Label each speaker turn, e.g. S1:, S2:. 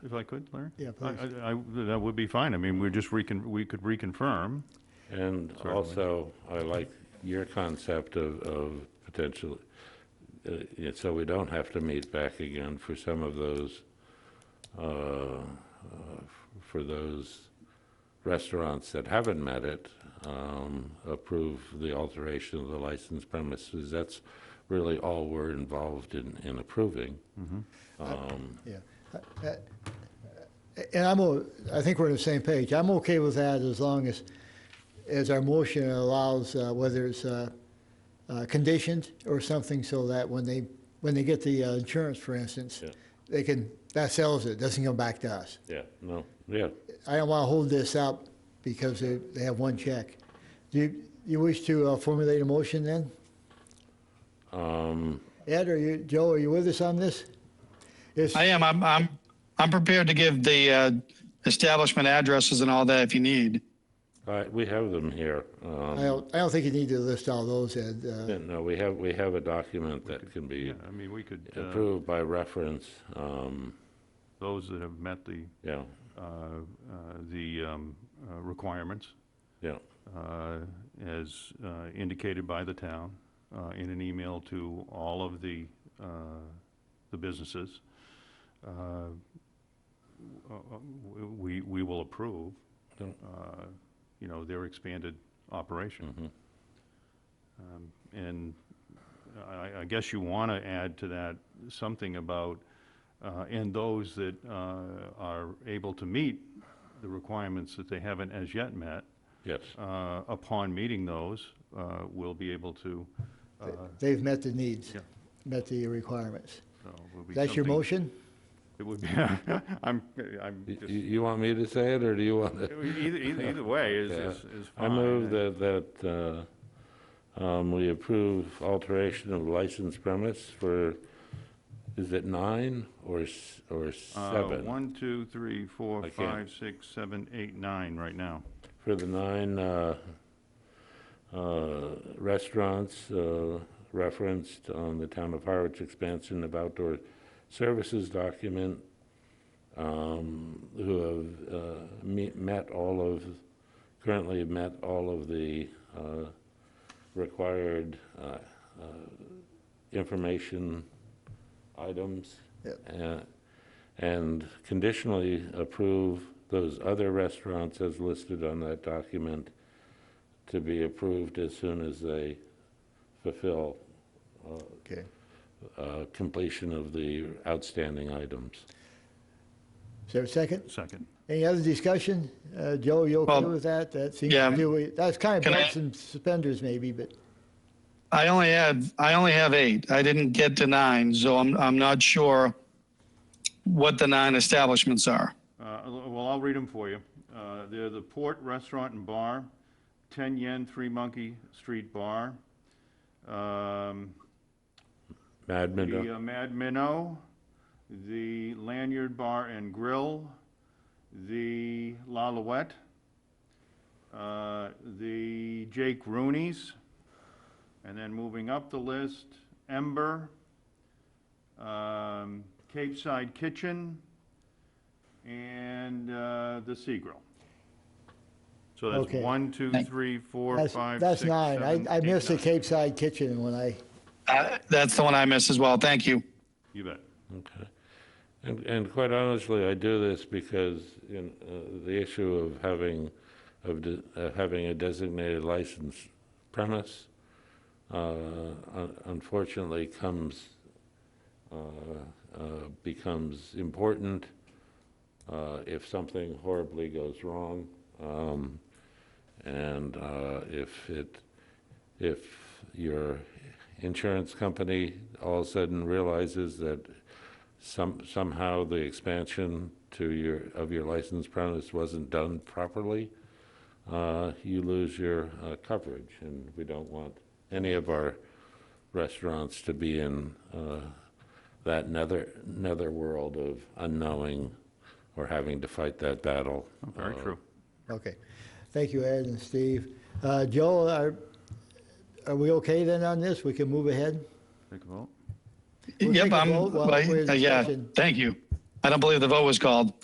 S1: If I could, Larry?
S2: Yeah,
S1: I-
S2: please.
S1: I, I- that would be fine. I mean, we're just recon, we could reconfirm.
S3: And
S1: Certainly.
S3: also, I like your concept of, of potential, uh, yeah, so we don't have to meet back again for some of those, uh, uh, f- for those restaurants that haven't met it, um, approve the alteration of the licensed premises. That's really all we're involved in, in approving. Um,
S2: Yeah. Uh, uh, And I'm, o- I think we're on the same page. I'm okay with that as long as, as our motion allows, uh, whether it's uh, uh, conditioned or something, so that when they, when they get the uh, insurance, for instance,
S3: Yeah.
S2: they can, that sells it, doesn't come back to us.
S3: Yeah, no, yeah,
S2: I don't want to hold this up because they, they have one check. Do you, you wish to uh, formulate a motion then?
S3: um,
S2: Ed, are you, Joe, are you with us on this? It's-
S4: I am. I'm. I'm. I'm prepared to give the uh, establishment addresses and all that if you need.
S3: all right, we have them here. um,
S2: I don't, I don't think you need to list all those, Ed. uh,
S3: Yeah, No, we have, we have a document that can be
S1: Yeah, I mean, we could, uh,
S3: approved by reference, um,
S1: those that have met the,
S3: yeah,
S1: uh, uh, the um, uh, requirements
S3: yeah,
S1: uh, as uh, indicated by the town uh, in an email to all of the, uh, the businesses, uh, w- uh, w- we, we will approve,
S3: Yeah.
S1: uh, you know, their expanded operation. Um, And I, I guess you want to add to that something about, uh, and those that uh, are able to meet the requirements that they haven't as yet met,
S3: yes,
S1: uh, upon meeting those, uh, we'll be able to, uh,
S2: They've met the needs,
S1: Yeah.
S2: met the requirements.
S1: so will uh, be
S2: That's your
S1: something-
S2: motion?
S1: It would be, I'm, I'm
S3: Y-
S1: just,
S3: You, you want me to say it, or do you want to?
S1: either, either, either way is,
S3: Yeah.
S1: is is
S3: I
S1: fine.
S3: move that, that, uh, um, we approve alteration of licensed premise for, is it nine or, s- or
S1: Uh,
S3: seven?
S1: One, two, three, four,
S3: I can't.
S1: five, six, seven, eight, nine, right now.
S3: For the nine, uh, uh, restaurants, uh, referenced on the town of Harwich expansion of outdoor services document, um, who have uh, me- met all of, currently have met all of the uh, required uh, uh, information items. Uh, And conditionally approve those other restaurants as listed on that document to be approved as soon as they fulfill
S2: Okay.
S3: uh, completion of the outstanding items.
S2: Is there a second?
S1: Second.
S2: Any other discussion? Uh, Joe, you okay
S4: Well,
S2: with that? That seems
S4: yeah.
S2: to be, that's kind of
S4: Can I-
S2: belts and suspenders maybe, but,
S4: I only have. I only have eight. I didn't get to nine, so I'm. I'm not sure what the nine establishments are.
S1: Uh, Well, I'll read them for you. Uh, They're the Port Restaurant and Bar, 10 Yen Three Monkey Street Bar, um,
S3: Mad
S1: The
S3: Minute,
S1: uh, Mad Minnow, the Lanyard Bar and Grill, the La Louette, uh, the Jake Rooney's, and then moving up the list, Ember, um, Cape Side Kitchen, and uh, the Sea Grill. So that's
S2: Okay.
S1: one, two, three, four,
S2: that's,
S1: five,
S2: that's
S1: six,
S2: nine.
S1: seven,
S2: I, I
S1: eight,
S2: missed the
S1: nine.
S2: Cape Side Kitchen when I,
S4: Uh, that's the one I missed as well. Thank you.
S1: You bet.
S3: okay. And, and quite honestly, I do this because in, uh, the issue of having, of de- uh, having a designated license premise, uh, un- unfortunately comes, uh, uh, becomes important uh, if something horribly goes wrong. Um, And uh, if it, if your insurance company all of a sudden realizes that some, somehow the expansion to your, of your license premise wasn't done properly, uh, you lose your uh, coverage, and we don't want any of our restaurants to be in uh, that nether, netherworld of unknowing or having to fight that battle.
S1: Very
S3: uh,
S1: true.
S2: okay. Thank you, Ed and Steve. Uh, Joe, are, are we okay then on this? We can move ahead?
S1: Take a vote.
S2: We'll take
S4: yep.
S2: a
S4: I'm.
S2: vote while
S4: I-
S2: we're in
S4: uh, yeah.
S2: discussion.
S4: Thank you. I don't believe the vote was called.